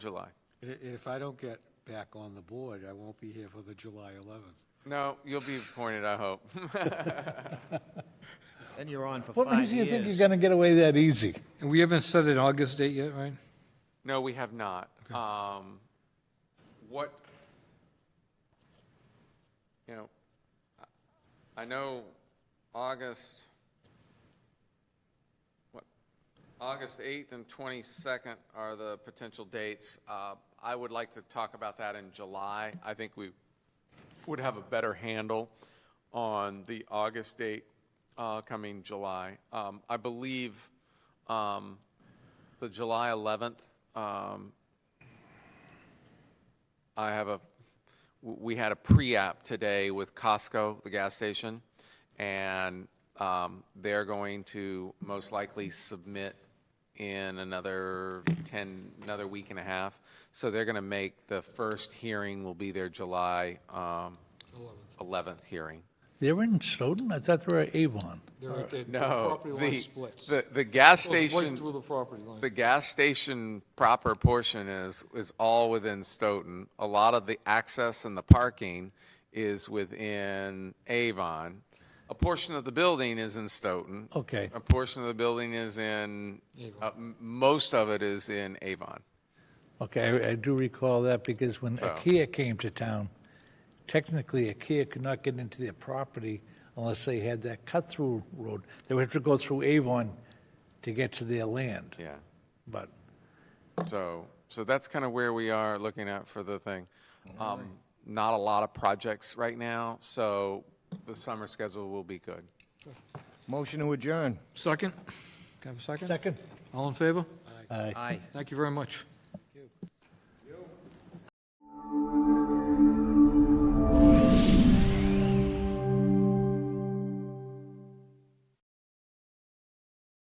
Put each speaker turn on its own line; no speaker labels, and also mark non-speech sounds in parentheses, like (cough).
July.
And i- and if I don't get back on the board, I won't be here for the July 11th.
No, you'll be appointed, I hope. (laughs)
Then you're on for
What
five
makes you think you're
years.
gonna get away that easy?
And we haven't set an August date yet, right?
No, we have not. Um, What, you know, I- I know August, what, August 8th and 22nd are the potential dates. Uh, I would like to talk about that in July. I think we would have a better handle on the August date uh, coming July. Um, I believe um, the July 11th, um, I have a, w- we had a pre-app today with Costco, the gas station, and um, they're going to most likely submit in another 10, another week and a half. So they're going to make, the first hearing will be their July um, 11th hearing.
They're in Stoughton? I thought they were Avon.
No, Oh, the, the, the gas station.
Through the property line.
The gas station proper portion is, is all within Stoughton. A lot of the access and the parking is within Avon. A portion of the building is in Stoughton.
Okay.
A portion of the building is in, uh, m- most of it is in Avon.
Okay, I- I do recall that because when
So-
IKEA came to town, technically IKEA could not get into their property unless they had that cut-through road. They would have to go through Avon to get to their land.
Yeah.
But
So, so that's kind of where we are looking at for the thing. Um, Not a lot of projects right now, so the summer schedule will be good.
Motion to adjourn.
Second? Can I have a second?
second,
All in favor?
I
Thank you very much.